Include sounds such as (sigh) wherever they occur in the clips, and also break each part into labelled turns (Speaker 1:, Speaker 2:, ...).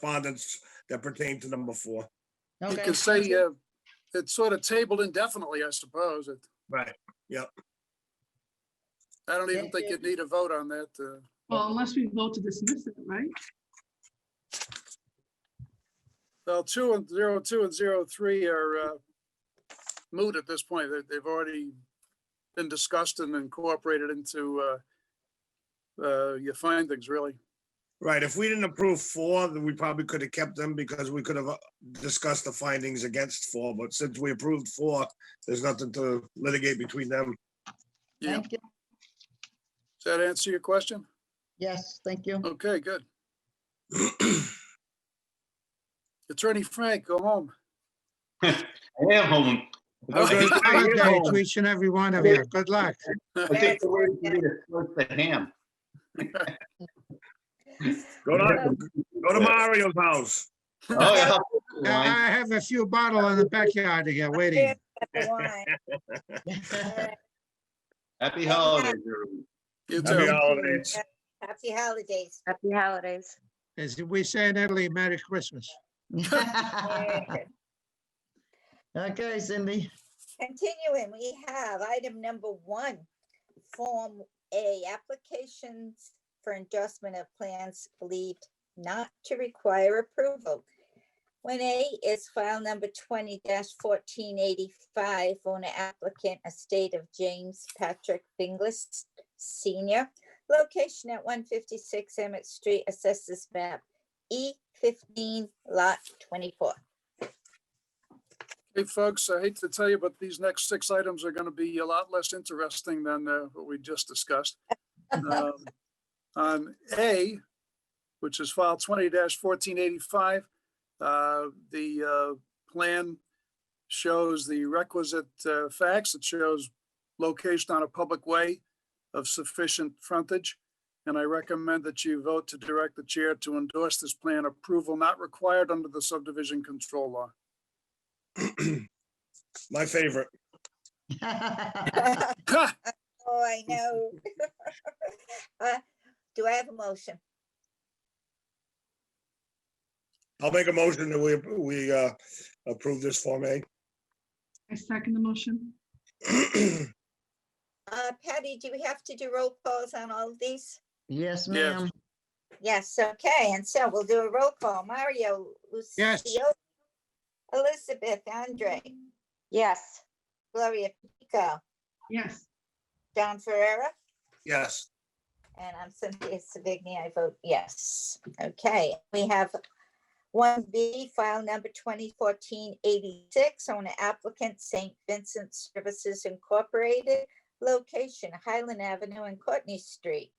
Speaker 1: correspondence that pertain to number four.
Speaker 2: You
Speaker 3: Okay.
Speaker 2: could say, uh, it's sort of tabled indefinitely, I suppose. It-
Speaker 1: Right.
Speaker 2: I don't even
Speaker 3: Yeah,
Speaker 2: think
Speaker 3: yeah.
Speaker 2: you'd need a vote on that. uh,
Speaker 4: Well, unless we vote to dismiss it, right?
Speaker 2: Well, two and zero two and zero three are uh, moot at this point. They- They've already been discussed and incorporated into uh, uh, your findings, really.
Speaker 1: Right. If we didn't approve four, then we probably could have kept them because we could have uh, discussed the findings against four, but since we approved four, there's nothing to litigate between them.
Speaker 2: Yeah.
Speaker 3: Thank you.
Speaker 2: Does that answer your question?
Speaker 3: Yes, thank you.
Speaker 2: Okay, good. Attorney Frank, go home.
Speaker 5: I am home. I
Speaker 2: (laughs) Okay.
Speaker 5: think
Speaker 6: Have a
Speaker 5: I
Speaker 6: good
Speaker 5: am
Speaker 6: day
Speaker 5: home.
Speaker 6: to each and every one of you. Good luck.
Speaker 5: (laughs) I think the word for me is close to ham.
Speaker 1: Go to, go to Mario's house.
Speaker 5: Oh, yeah.
Speaker 6: I
Speaker 5: Wine.
Speaker 6: (laughs) I have a few bottle in the backyard here waiting.
Speaker 5: Happy holidays, everyone.
Speaker 2: You
Speaker 1: Happy
Speaker 2: too.
Speaker 1: holidays.
Speaker 7: Happy holidays.
Speaker 8: Happy holidays.
Speaker 6: As we say in Italy, Merry Christmas.
Speaker 3: (laughs) Okay, Cindy. (laughs)
Speaker 7: Continuing, we have item number one, Form A, applications for endorsement of plans believed not to require approval. One A is file number twenty fourteen eighty-five, owner applicant, estate of James Patrick Finglis Senior. Location at one fifty-six Emmett Street, assesses map E fifteen lot twenty-four.
Speaker 2: Hey, folks, I hate to tell you, but these next six items are going to be a lot less interesting than uh, what we just discussed. Um, On A, which is file twenty fourteen eighty-five, the uh, plan shows the requisite uh, facts. It shows location on a public way of sufficient frontage. And I recommend that you vote to direct the chair to endorse this plan approval not required under the subdivision control law.
Speaker 1: My favorite.
Speaker 7: Oh, I know. (laughs) Uh, Do I have a motion?
Speaker 1: I'll make a motion that we, we uh, approve this Form A.
Speaker 4: I second the motion.
Speaker 1: (clears throat)
Speaker 7: Uh, Patty, do we have to do roll calls on all of these?
Speaker 3: Yes,
Speaker 2: Yes.
Speaker 3: ma'am.
Speaker 7: Yes, okay, and so we'll do a roll call. Mario,
Speaker 6: Yes.
Speaker 7: Lucio, Elizabeth, Andre,
Speaker 8: Yes.
Speaker 7: Gloria Pico,
Speaker 4: Yes,
Speaker 7: John Ferrera,
Speaker 1: Yes.
Speaker 7: and I'm Cynthia Savigny. I vote yes. Okay, we have one B, file number twenty fourteen eighty-six, owner applicant St. Vincent Services Incorporated, location Highland Avenue and Courtney Street.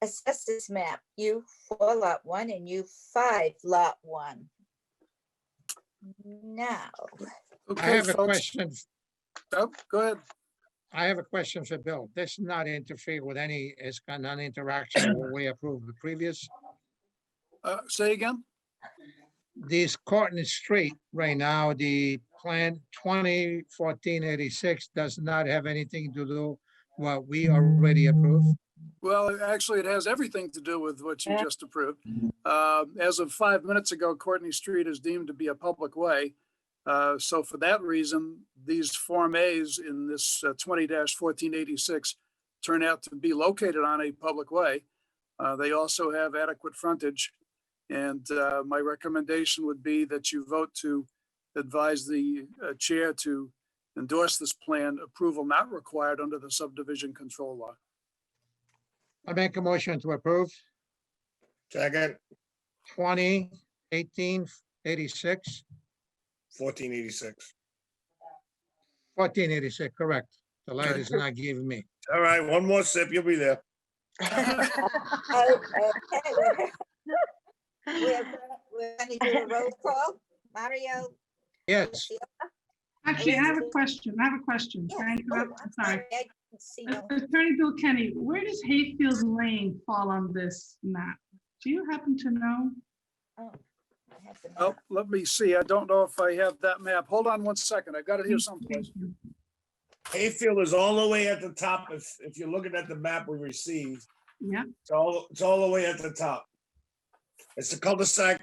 Speaker 7: Assessors map U four lot one and U five lot one. Now,
Speaker 6: I
Speaker 2: Okay,
Speaker 6: have a
Speaker 2: folks.
Speaker 6: question.
Speaker 2: Oh, go ahead.
Speaker 6: I have a question for Bill. This not interfere with any, it's got non interaction when we approved the previous.
Speaker 2: Uh, say again?
Speaker 6: This Courtney Street right now, the plan twenty fourteen eighty-six does not have anything to do what we already approved.
Speaker 2: Well, actually, it has everything to do with what you just approved. Uh, as of five minutes ago, Courtney Street is deemed to be a public way. Uh, so for that reason, these Form As in this uh, twenty fourteen eighty-six turn out to be located on a public way. Uh, they also have adequate frontage. And, uh, my recommendation would be that you vote to advise the uh, chair to endorse this plan, approval not required under the subdivision control law.
Speaker 6: I make a motion to approve.
Speaker 1: Second,
Speaker 6: 20, 18, 86,
Speaker 1: fourteen eighty-six.
Speaker 6: 1486, correct. The light is not giving me.
Speaker 1: All right, one more sip, you'll be there.
Speaker 7: oh, okay, we're, we're gonna do a roll call. Mario,
Speaker 6: Yes,
Speaker 4: actually, I have a question. I have a question.
Speaker 7: Yeah.
Speaker 4: Thank
Speaker 7: Oh,
Speaker 4: you.
Speaker 7: I'm
Speaker 4: Sorry.
Speaker 7: I didn't see no-
Speaker 4: Uh, Attorney Bill Kenny, where does Hayfield Lane fall on this map? Do you happen to know?
Speaker 7: oh, I have the
Speaker 2: Oh,
Speaker 7: map.
Speaker 2: let me see. I don't know if I have that map. Hold on one second. I've got it here someplace.
Speaker 4: Thank you.
Speaker 1: Hayfield is all the way at the top. If, if you're looking at the map we received,
Speaker 4: Yeah,
Speaker 1: it's all, it's all the way at the top. It's a cul-de-sac